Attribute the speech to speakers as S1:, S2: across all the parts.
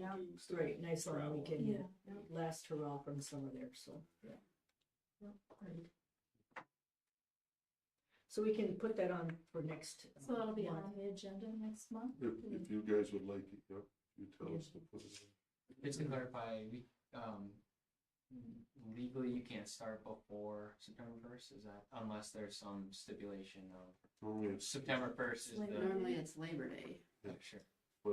S1: down.
S2: Right, nice long
S3: Travel.
S2: weekend,
S1: Yeah. yeah.
S2: last hurrah from summer there, so, yeah.
S1: Right.
S2: So we can put that on for next. uh,
S1: So that'll be
S2: month.
S1: on the agenda next month.
S4: If, if you guys would like it, yep, you tell us to put it in.
S5: Just to clarify, we, um, legally, you can't start before September first, is that, unless there's some stipulation of
S4: Normally it's,
S5: September first is the,
S6: Normally it's Labor Day.
S5: oh, sure.
S4: uh,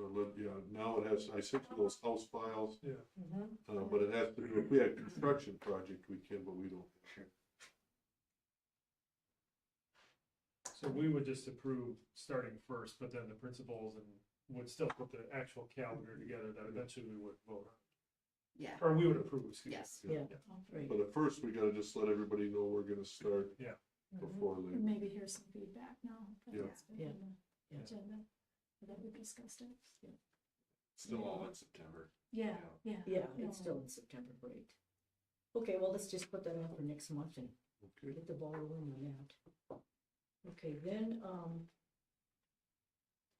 S4: let- yeah, now it has, I sent you those house files,
S2: Mhm.
S4: uh, but it has to do, if we had construction project, we can, but we don't.
S7: So we would just approve starting first, but then the principals and would still put the actual calendar together that eventually we would vote
S6: Yeah,
S7: on, or we would approve, excuse me.
S6: yes.
S2: Yeah, right.
S4: But at first, we gotta just let everybody know we're gonna start
S2: Mhm.
S4: before
S1: And
S4: they,
S1: maybe hear some feedback now. that
S4: Yeah.
S1: that's been on the
S2: Yeah.
S1: Agenda, that we discussed it.
S3: Still all in September.
S1: Yeah, yeah. Um,
S2: Yeah, it's still in September, right. Okay, well, let's just put that on for next month and
S4: okay,
S2: get the ball rolling on that. Okay, then, um,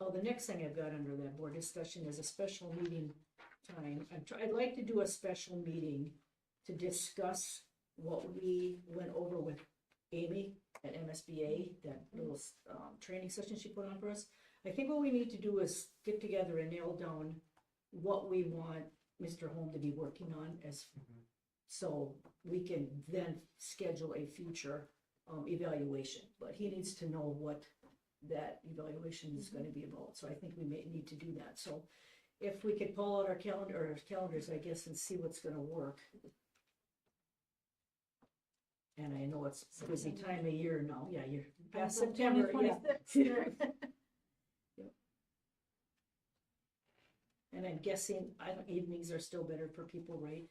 S2: oh, the next thing I've got under that board discussion is a special meeting time. I'm try, I'd like to do a special meeting to discuss what we went over with Amy at MSBA, that little, um, training session she put on for us. I think what we need to do is get together and nail down what we want Mr. Holm to be working on as,
S7: Mhm.
S2: so we can then schedule a future um, evaluation. But he needs to know what that evaluation is gonna be about, so I think we may need to do that. So if we could pull out our calendar, or calendars, I guess, and see what's gonna work. And I know it's a busy time of year now, yeah, you're past September, yeah. And I'm guessing, I don't, evenings are still better for people, right?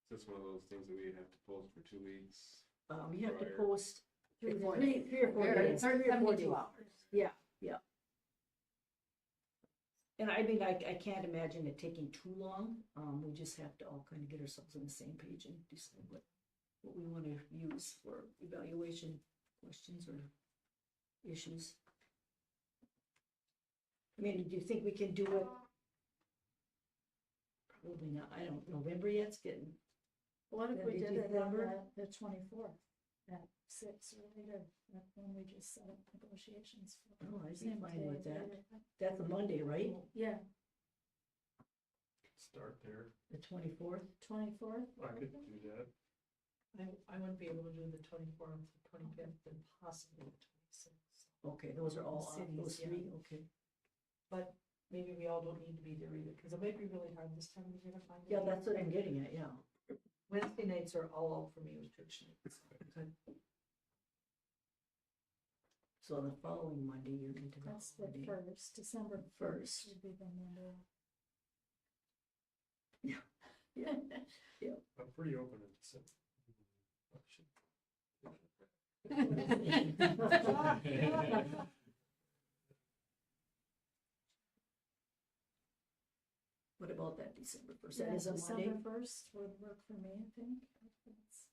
S3: It's just one of those things that we have to post for two weeks.
S2: Um, you have to
S3: Prior.
S2: post
S6: Three, four
S2: three,
S6: days.
S2: three or four
S6: Very-
S2: days, three or four days.
S6: Seventy-two hours.
S2: And I mean, I, I can't imagine it taking too long. Um, we just have to all kind of get ourselves on the same page and decide what, what we want to use for evaluation questions or issues. I mean, do you think we can do it? Probably not. I don't, November yet, it's getting,
S1: What if
S2: That'd
S1: we
S2: be
S1: did it on the,
S2: December.
S1: the twenty-fourth, at six or later, that when we just set up negotiations for.
S2: oh, I see
S1: same
S2: fine
S1: day
S2: with
S1: or
S2: that.
S1: later.
S2: That's a Monday, right?
S1: Yeah,
S7: Start there,
S2: The twenty-fourth?
S1: twenty-fourth.
S7: I could do that.
S8: I, I wouldn't be able to do the twenty-fourth, the twenty-fifth, and possibly the twenty-sixth.
S2: Okay, those are all, off,
S8: Cities,
S2: those
S8: yeah.
S2: three, okay.
S8: Maybe we all don't need to be there either, because it might be really hard this time of year to find. a
S2: Yeah, that's what
S8: date.
S2: I'm getting at, yeah.
S8: Wednesday nights are all out for me with church nights.
S2: So the following Monday, you're into the
S1: That's the
S2: holiday.
S1: first, December first would be the number.
S7: I'm pretty open in December.
S2: What about that December first?
S1: Yeah,
S2: That is a Monday.
S1: December first would work for me, I think. That's-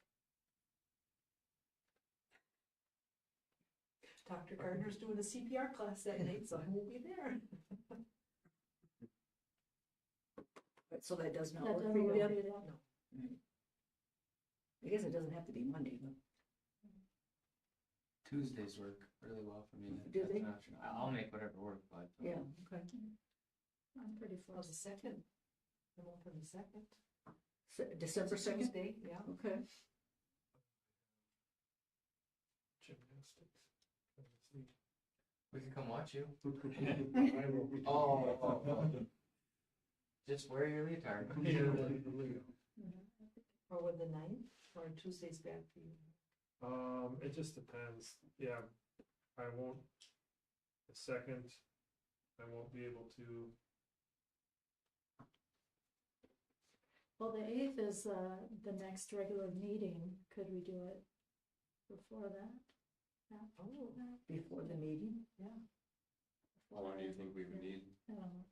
S8: Dr. Gardner's doing a CPR class that night, so I won't be there.
S2: Right, So that does not
S1: That
S2: work for
S1: doesn't
S2: you.
S1: work
S2: yeah?
S1: for you, yeah.
S2: No. I guess it doesn't have to be Monday, but
S5: Tuesdays work really well for me.
S2: Do
S5: That's
S2: they?
S5: an option. I- I'll make whatever work, but. uh,
S2: yeah, okay.
S1: I'm pretty
S8: Well, the
S1: flexible.
S8: second, I'm open the second.
S2: Se- December second,
S8: Tuesday, yeah.
S2: okay.
S7: Gymnastics.
S5: We can come watch you.
S7: I will.
S5: Oh, oh, oh. Just wear your leotard.
S7: Yeah.
S8: Or with the ninth, or Tuesday's bad for you.
S7: Um, it just depends, yeah, I won't, the second, I won't be able to,
S1: Well, the eighth is, uh, the next regular meeting. Could we do it before that?
S8: Oh,
S2: Before the meeting,
S3: How long do you think we would need?
S1: I don't know.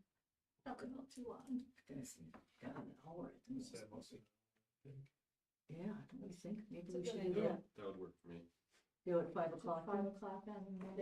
S1: Not going out too long.
S2: I was gonna say, got an hour at the most.
S7: say most of it.
S2: Yeah, don't we think, maybe
S8: It's a
S2: we
S8: good
S2: should do
S8: idea.
S2: that,
S3: That would work for me.
S2: do it at five o'clock.
S1: Five o'clock on Monday.